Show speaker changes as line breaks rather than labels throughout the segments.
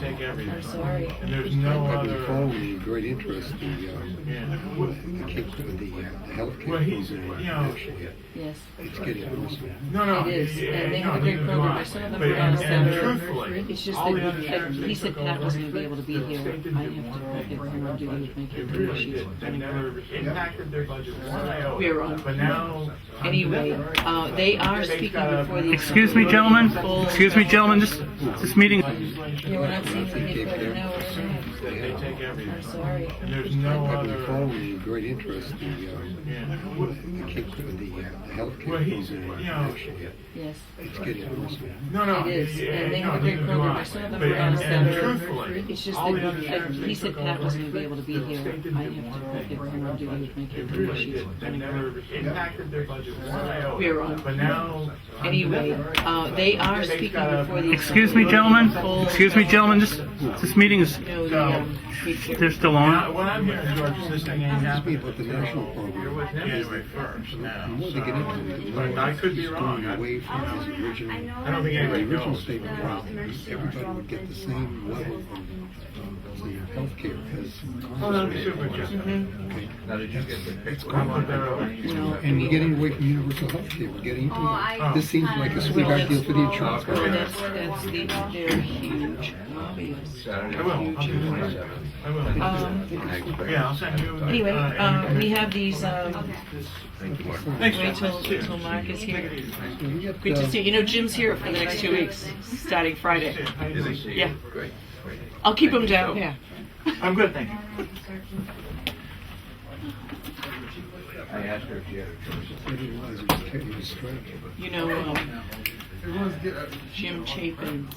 we're sorry.
And there's no
I probably
other-
follow with
uh,
great interest the, um,
Yeah.
the kids, the, uh, the
Well,
healthcare
he's-
program in
you know-
Michigan.
Yes.
It's getting worse.
No, no.
It is,
Oh, yeah,
and they
yeah,
have a
no,
great
neither do
program.
I.
I saw them
But-
on
and- and
Saturday.
truthfully,
It's just
all the
that
other
he-
sheriffs
he
they
said
took
Pat
over,
wasn't gonna be able to be
the
here.
state didn't
I
do
have to
one
go
thing
get
for
my
their
duty
budget.
with my
They
duty
really
issues.
did. They never impacted their budget one iota.
We are on.
But now.
Anyway, uh, they are speaking before
uh,
the.
Excuse me, gentlemen. Excuse me, gentlemen. This this meeting.
Yeah, we're not seeing
They
anything
take
further now.
their-
We're
They
they
take
not. I'm
everything.
sorry.
And there's no
probably follow
other.
with great interest the, um,
Yeah.
the kids, the, uh, the healthcare
Well, he's-
program
you
in
know-
Michigan.
Yes.
It's getting worse.
No, no.
It is,
yeah,
and they
no,
have a great
neither do
program.
I.
I saw them
But- and-
on
and
Saturday.
truthfully,
It's just
all the
that
other
he-
sheriffs
he
they
said
took
Pat
over,
wasn't gonna be able to be
the
here.
state didn't
I
do
have to
one
go
thing
get
for
my
their
duty
budget.
with my
They
duty
really
issues.
did. They never impacted their budget one iota.
We are on.
But now.
Anyway, uh, they are speaking before the.
Excuse me, gentlemen. Excuse me, gentlemen. This this meeting is.
No, the, um, future.
They're still on.
Now, what I'm hearing, George, is this thing ain't happening.
Speak with the national program.
You're with January first
The more they get
now.
into it, the
But I
more
could be
it's
wrong.
going
I-
away from his
Oh, I
original.
know
I don't think
The
anybody
original
knows.
statement was everybody would get the same level of, of the healthcare as.
Hold on, super, just-
It's
I want that
gone.
over.
No.
And we're getting away from universal healthcare, we're getting into
Oh, I-
that. This seems like a
Well,
sweetheart
that's,
deal for the insurance
well,
company.
that's, that's the, they're huge lobbyists.
I will. I'll do that. I will.
Um,
Yeah, I'll send you.
anyway,
uh,
uh, we
information.
have these, um,
Thanks,
wait till,
Jeff. Cheers.
till Mark is here.
We got,
Good
uh,
to see you. You know, Jim's here for the next two weeks, starting Friday.
How you doing?
Yeah. I'll keep him down. Yeah.
I'm good, thank you.
I asked her if she had a choice.
I didn't realize it was Teddy was striking.
You know, um,
uh,
Jim Chapin's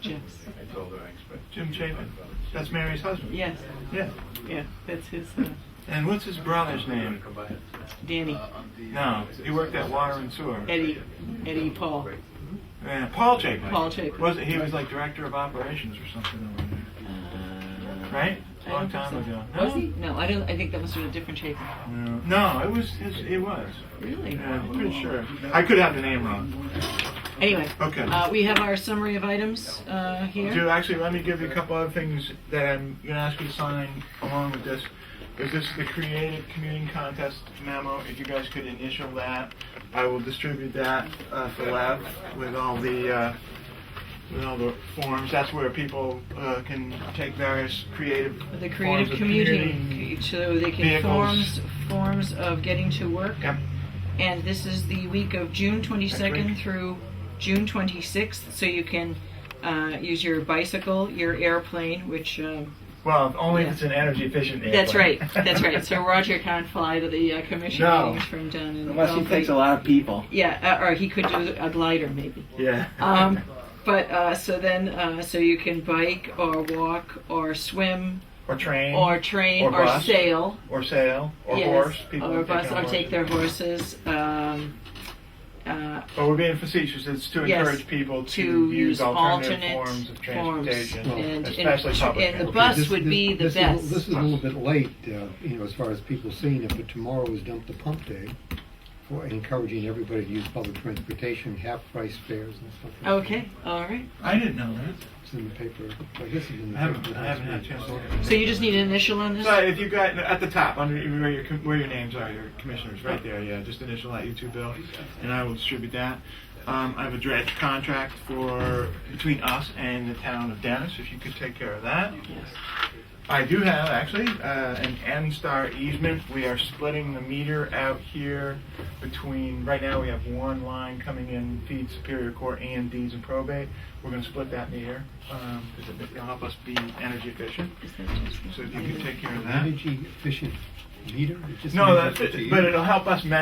Jeff's.
I told her I expect.
Jim Chapin. That's Mary's husband.
Yes,
Yeah.
yeah, that's his, uh,
And what's his brother's name? Uh,
Danny,
No, he worked at Water and Sewer.
Eddie, Eddie Paul,
Yeah, Paul Chapin.
Paul Chapin.
Was it? He was like director of operations or something over there. Right?
I
Long
don't
time
think so.
ago.
Uh, Was he? No, I don't, I think that must have been a different Chapin.
No, it was. His, it was.
Really?
Yeah, I'm pretty sure. I could have the name wrong.
Anyway,
Okay.
uh, we have our summary of items, uh,
Dude,
here.
actually, let me give you a couple other things that I'm going to ask you to sign along with this. Is this the Creative Commuting Contest memo? If you guys could initial that, I will distribute that uh, for Lev with all the uh, with all the forms. That's where people uh, can take various creative
The creative
forms of
commuting, so they can
Vehicles.
forms, forms of getting to work.
Yep.
And this is the week of June
Next
twenty-second
week.
through June twenty-sixth, so you can, uh, use your bicycle, your airplane, which, um,
Well, only
Yeah.
if it's an energy efficient.
That's right.
airplane.
That's right. So Roger can't fly to the uh, commission
No.
meetings from down in
Unless he
Belgrade.
takes a lot of people.
Yeah, uh, or he could do a glider maybe.
yeah.
Um, but uh, so then, uh, so you can bike or walk or swim
or train.
or train
Or
or,
bus.
sail.
or sail. Or
yes,
horse. People
or
who take
bus
on
or
horses.
take their horses. Um, uh,
But we're being facetious. It's to
Yes,
encourage people to,
to
use
use
alternative
alternate
forms of
forms
transportation,
and-
especially
and-
public
and
transportation.
the bus
This-
would
this-
be the
this is a-
best.
This is a little bit late, uh, you know, as far as people seeing it, but tomorrow is dump the pump day for encouraging everybody to use public transportation, half-price fares and stuff. like that.
okay. All right.
I didn't know that.
It's in the paper, I guess it's in the paper.
I haven't, I
last
haven't had a
week.
chance to look at it.
So you just need an initial on this.
So if you got at the top under where your com- where your names are, your commissioners, right there, yeah, just initial that you two, Bill, and I will distribute that. Um, I have a dredge contract for between us and the town of Dennis. If you could take care of that.
Yes.
I do have actually uh, an M Star easement. We are splitting the meter out here between. Right now, we have one line coming in feed Superior Court and deeds and probate. We're going to split that meter because it it'll help us be energy efficient.
Is that just-
So if you could take care of that.
Energy efficient meter? It just
No,
means
that's
what you
it,
use.
but it'll help us measure.